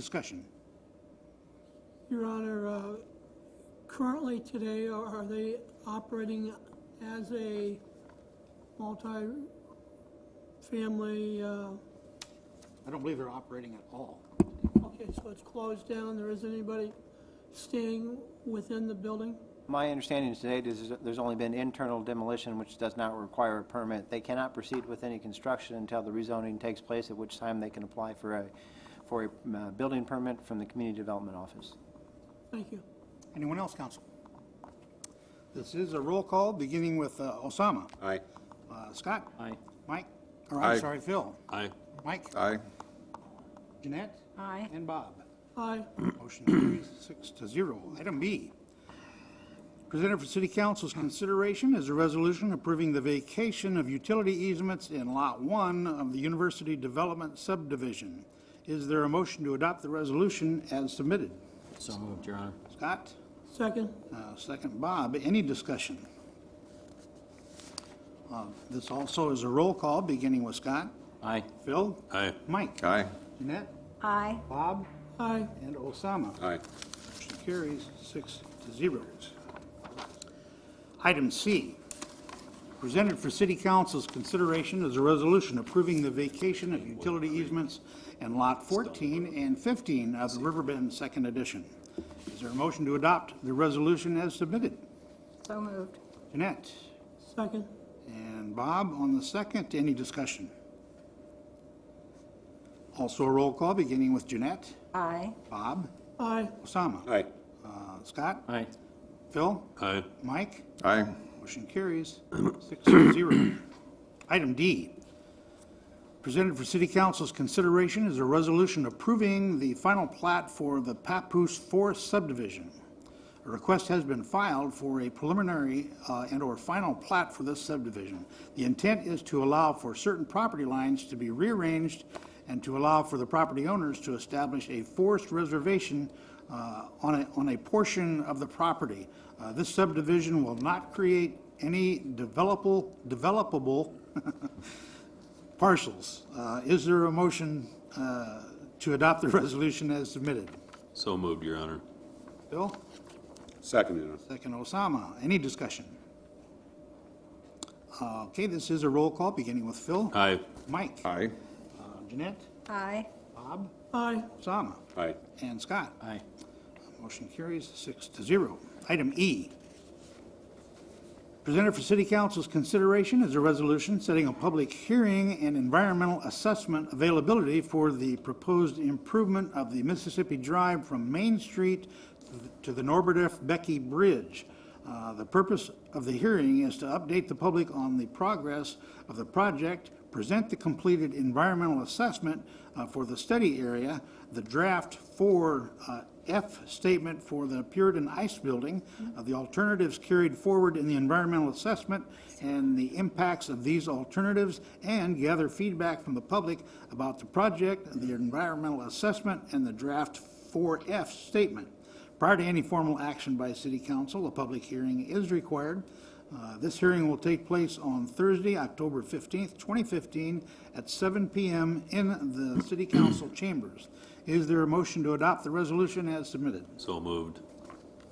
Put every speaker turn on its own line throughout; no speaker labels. Discussion.
Your Honor, uh, currently today, uh, are they operating as a multi-family, uh,
I don't believe they're operating at all.
okay, so it's closed down, there isn't anybody staying within the building?
My understanding is today is there's only been internal demolition, which does not require a permit. They cannot proceed with any construction until the rezoning takes place, at which time they can apply for a, for a uh, building permit from the Community Development Office.
Thank you.
Anyone else, counsel? This is a roll call, beginning with uh, Osama.
Aye.
Uh, Scott?
Aye.
Mike? Or I'm
Aye.
sorry, Phil?
Aye.
Mike?
Aye.
Jeanette?
Aye.
And Bob?
Aye.
Motion carries six to zero. Item B, presented for city council's consideration is a resolution approving the vacation of utility easements in Lot 1 of the University Development Subdivision. Is there a motion to adopt the resolution as submitted?
So moved, Your Honor.
Scott?
Second?
Uh, Second, Bob. Any discussion? Uh, This also is a roll call, beginning with Scott.
Aye.
Phil?
Aye.
Mike?
Aye.
Jeanette?
Aye.
Bob?
Aye.
And Osama?
Aye.
Motion carries six to zero. Item C, presented for city council's consideration is a resolution approving the vacation of utility easements in Lot 14 and 15 of the Riverbend Second Edition. Is there a motion to adopt the resolution as submitted?
So moved.
Jeanette
Second?
and Bob on the second. Any discussion? Also a roll call, beginning with Jeanette,
Aye.
Bob,
Aye.
Osama.
Aye.
Uh, Scott?
Aye.
Phil?
Aye.
Mike?
Aye.
Motion carries six to zero. Item D, presented for city council's consideration is a resolution approving the final plat for the Papoose Forest subdivision. A request has been filed for a preliminary uh, and/or final plat for this subdivision. The intent is to allow for certain property lines to be rearranged and to allow for the property owners to establish a forest reservation uh, on a, on a portion of the property. Uh, This subdivision will not create any developable, developable parcels. Uh, Is there a motion uh, to adopt the resolution as submitted?
So moved, Your Honor.
Bill?
Seconded.
Second Osama. Any discussion? Uh, Okay, this is a roll call, beginning with Phil.
Aye.
Mike.
Aye.
Uh, Jeanette.
Aye.
Bob.
Aye.
Osama.
Aye.
And Scott.
Aye.
Motion carries six to zero. Item E. Presented for city council's consideration is a resolution setting a public hearing and environmental assessment availability for the proposed improvement of the Mississippi Drive from Main Street to the Norbert F. Becky Bridge. Uh, The purpose of the hearing is to update the public on the progress of the project, present the completed environmental assessment uh, for the study area, the draft for uh, F statement for the Puritan Ice Building, of the alternatives carried forward in the environmental assessment, and the impacts of these alternatives, and gather feedback from the public about the project, the environmental assessment, and the draft 4F statement. Prior to any formal action by city council, a public hearing is required. Uh, This hearing will take place on Thursday, October 15th, 2015, at 7 PM in the city council chambers. Is there a motion to adopt the resolution as submitted?
So moved.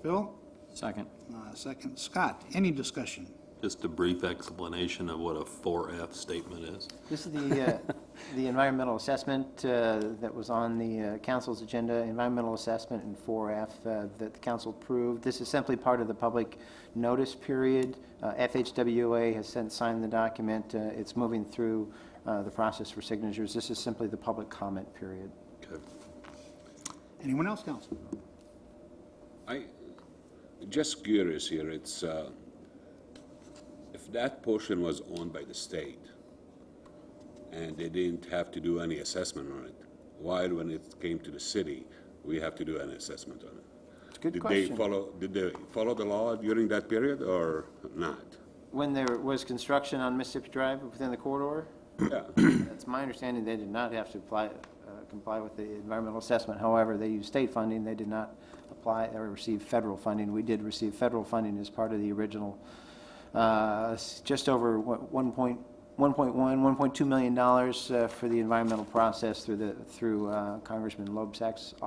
Bill?
Second.
Uh, Second, Scott. Any discussion?
Just a brief explanation of what a 4F statement is.
This is the, uh, the environmental assessment uh, that was on the uh, council's agenda, environmental assessment in 4F uh, that the council approved. This is simply part of the public notice period. Uh, FHWA has since signed the document. Uh, It's moving through uh, the process for signatures. This is simply the public comment period.
Okay.
Anyone else, council?
I, just curious here, it's, uh, if that portion was owned by the state and they didn't have to do any assessment on it, why when it came to the city, we have to do an assessment on it?
It's a good
Did they
question.
follow, did they follow the law during that period or not?
When there was construction on Mississippi Drive within the corridor,
Yeah,
It's my understanding they did not have to apply, uh, comply with the environmental assessment. However, they used state funding. They did not apply or receive federal funding. We did receive federal funding as part of the original, uh, s- just over one- 1.1 1.1, $1.2 million uh, for the environmental process through the, through uh, Congressman Lobsack's